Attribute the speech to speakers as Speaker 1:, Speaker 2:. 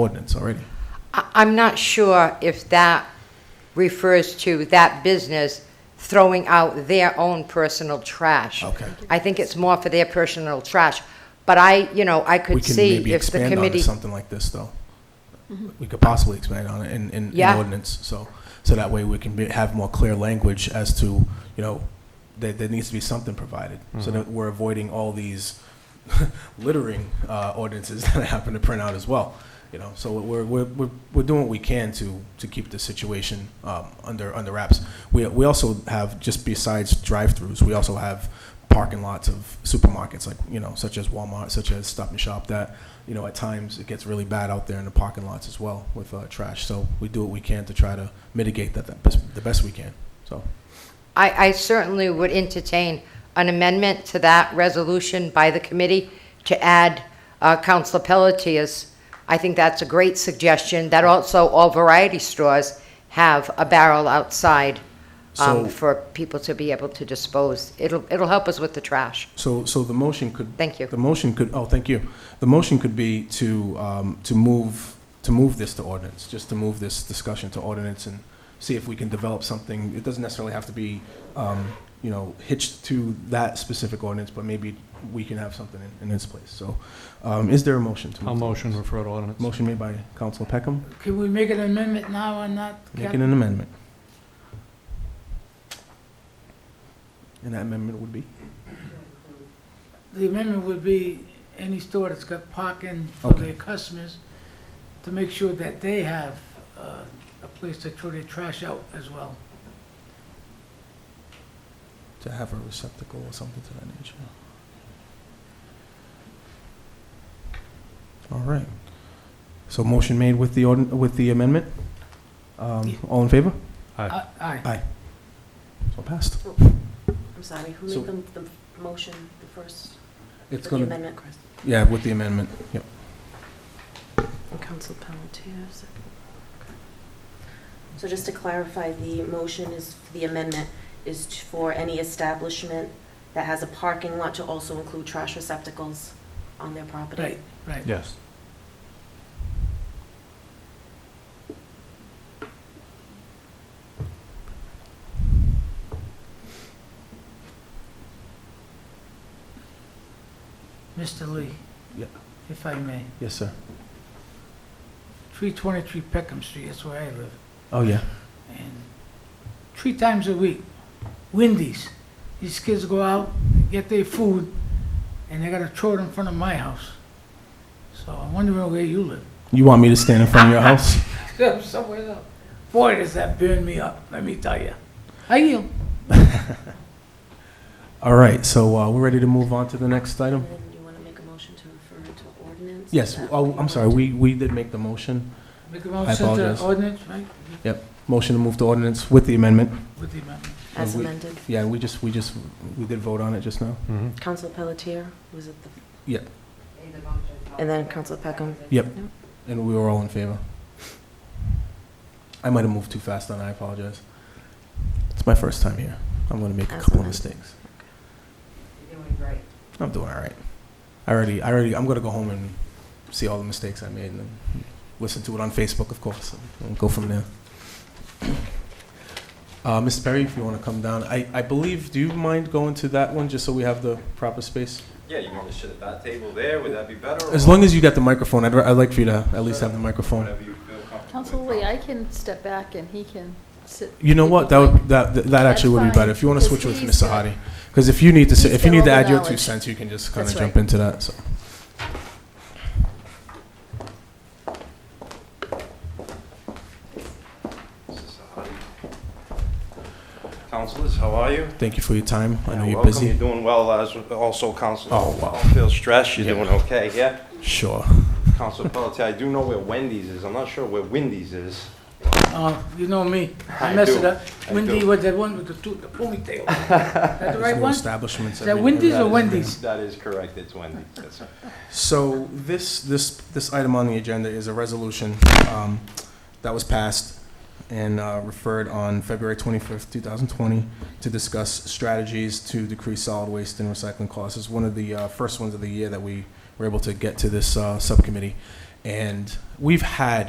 Speaker 1: ordinance already.
Speaker 2: I- I'm not sure if that refers to that business throwing out their own personal trash.
Speaker 1: Okay.
Speaker 2: I think it's more for their personal trash, but I, you know, I
Speaker 1: We
Speaker 2: could
Speaker 1: can
Speaker 2: see
Speaker 1: maybe
Speaker 2: if the
Speaker 1: expand on
Speaker 2: committee. Mm-hmm.
Speaker 1: something like this, though. We could possibly expand on it in, in, in
Speaker 2: Yeah.
Speaker 1: ordinance, so, so that way we can be, have more clear language as to, you know, that there needs to be something provided, so that we're avoiding all these littering uh, ordinances that I happen to print out as well, you know, so we're, we're, we're, we're doing what we can to, to keep the situation um, under, under wraps. We, we also have, just besides drive-throughs, we also have parking lots of supermarkets, like, you know, such as Walmart, such as Stop and Shop, that, you know, at times it gets really bad out there in the parking lots as well with uh, trash. So we do what we can to try to mitigate that, that best, the best we can. So
Speaker 2: I, I certainly would entertain an amendment to that resolution by the committee to add uh, Counselor Pelletier's. I think that's a great suggestion, that also all variety stores have a barrel outside um,
Speaker 1: So-
Speaker 2: for people to be able to dispose. It'll, it'll help us with the trash.
Speaker 1: So, so the motion could.
Speaker 2: Thank you.
Speaker 1: The motion could, oh, thank you. The motion could be to, um, to move, to move this to ordinance, just to move this discussion to ordinance and see if we can develop something. It doesn't necessarily have to be, um, you know, hitched to that specific ordinance, but maybe we can have something in, in its place. So, um, is there a motion to? move
Speaker 3: I'll
Speaker 1: to
Speaker 3: motion
Speaker 1: ordinance?
Speaker 3: refer to ordinance.
Speaker 1: Motion made by Council Peckham,
Speaker 4: Can we make an amendment now or not?
Speaker 1: making an amendment. And that amendment would be?
Speaker 4: The amendment would be any store that's got parking for
Speaker 1: Okay.
Speaker 4: their customers to make sure that they have uh, a place to throw their trash out as well.
Speaker 1: to have a receptacle or something to that nature. All right. So motion made with the ordin- with the amendment. Um, all in favor?
Speaker 3: Aye.
Speaker 4: A- Aye.
Speaker 1: So passed.
Speaker 5: I'm sorry, who
Speaker 1: So-
Speaker 5: made them the motion, the first,
Speaker 1: It's
Speaker 5: the
Speaker 1: gonna,
Speaker 5: amendment?
Speaker 1: yeah, with the amendment. Yep.
Speaker 5: Council Pelletier, second. So just to clarify, the motion is, the amendment is t- for any establishment that has a parking lot to also include trash receptacles on their property.
Speaker 4: Right, right.
Speaker 3: Yes.
Speaker 4: Mr. Lee?
Speaker 1: Yeah.
Speaker 4: If I may.
Speaker 1: Yes, sir.
Speaker 4: 323 Peckham Street, that's where I live.
Speaker 1: Oh yeah.
Speaker 4: And three times a week, Wendy's. These kids go out, get their food, and they gotta throw it in front of my house. So I'm wondering where you live.
Speaker 1: You want me to stand in front of your house?
Speaker 4: Yeah, somewhere else. Boy, does that burn me up, let me tell you. I yield.
Speaker 1: All right. So uh, we're ready to move on to the next
Speaker 5: And
Speaker 1: item.
Speaker 5: then you want to make a motion to refer it to ordinance? Is
Speaker 1: Yes.
Speaker 5: that
Speaker 1: Oh,
Speaker 5: what you
Speaker 1: I'm sorry.
Speaker 5: want?
Speaker 1: We we did make the motion.
Speaker 4: Make a motion
Speaker 1: apologize.
Speaker 4: to ordinance, right,
Speaker 1: Motion to move to ordinance with the amendment.
Speaker 4: with the amendment.
Speaker 5: As
Speaker 1: we-
Speaker 5: amended,
Speaker 1: Yeah. We just we just we did vote on it just now.
Speaker 3: Mhm.
Speaker 5: Council Pelletier, was it the, and
Speaker 2: And
Speaker 5: then Council Peckham?
Speaker 1: And we were all in favor. I might have moved too fast on, I apologize. It's my first time here. I'm going to make a
Speaker 5: That's
Speaker 1: couple of
Speaker 5: okay.
Speaker 1: mistakes.
Speaker 2: You're doing great.
Speaker 1: I'm doing all right. I already, I already, I'm going to go home and see all the mistakes I made and then listen to it on Facebook, of course, and- and go from there. Uh, Ms. Perry, if you want to come down, I, I believe, do you mind going to that one just so we have the proper space?
Speaker 6: Yeah, you want me to sit at that table there? Would that be better? or
Speaker 1: As long as you got the microphone, I'd, I'd like for you to at least have the microphone.
Speaker 6: Whatever you feel comfortable.
Speaker 7: Council
Speaker 6: with.
Speaker 7: Lee, I can step back and he can sit.
Speaker 1: You know what? That would that that that actually would be
Speaker 7: That's fine,
Speaker 1: better if you want to
Speaker 7: 'cause
Speaker 1: switch with
Speaker 7: he's
Speaker 1: Mr.
Speaker 7: got-
Speaker 1: Hadi, because if you need to say,
Speaker 7: he's
Speaker 1: if you
Speaker 7: got
Speaker 1: need
Speaker 7: all
Speaker 1: to
Speaker 7: the
Speaker 1: add your two
Speaker 7: knowledge.
Speaker 1: cents, you can just kind of
Speaker 7: That's
Speaker 1: jump
Speaker 7: right.
Speaker 1: into that. So.
Speaker 6: This is Saadi. Councilors, how are you?
Speaker 1: Thank you for your time. I know
Speaker 6: Yeah,
Speaker 1: you're
Speaker 6: welcome.
Speaker 1: busy.
Speaker 6: You're doing well, as also Council.
Speaker 1: Oh, wow.
Speaker 6: Don't feel stressed, you're
Speaker 1: Yeah.
Speaker 6: doing okay, yeah?
Speaker 1: Sure.
Speaker 6: Council Pelletier, I do know where Wendy's is, I'm not sure where Wendy's is.
Speaker 4: Uh, you know me, I
Speaker 6: I
Speaker 4: mess
Speaker 6: do.
Speaker 4: it up.
Speaker 6: I
Speaker 4: Wendy
Speaker 6: do.
Speaker 4: was the one with the two, the ponytail. That the
Speaker 1: There's
Speaker 4: right
Speaker 1: new
Speaker 4: one?
Speaker 1: establishments.
Speaker 4: Is that
Speaker 1: everywhere.
Speaker 4: Wendy's
Speaker 6: That
Speaker 4: or
Speaker 6: is-
Speaker 4: Wendy's?
Speaker 6: That is correct, it's Wendy's, that's
Speaker 1: So this, this, this item on the agenda is a resolution um, that was passed and uh, referred on February 25th, 2020, to discuss strategies to decrease solid waste and recycling costs. It's one of the uh, first ones of the year that we were able to get to this uh, subcommittee. And we've had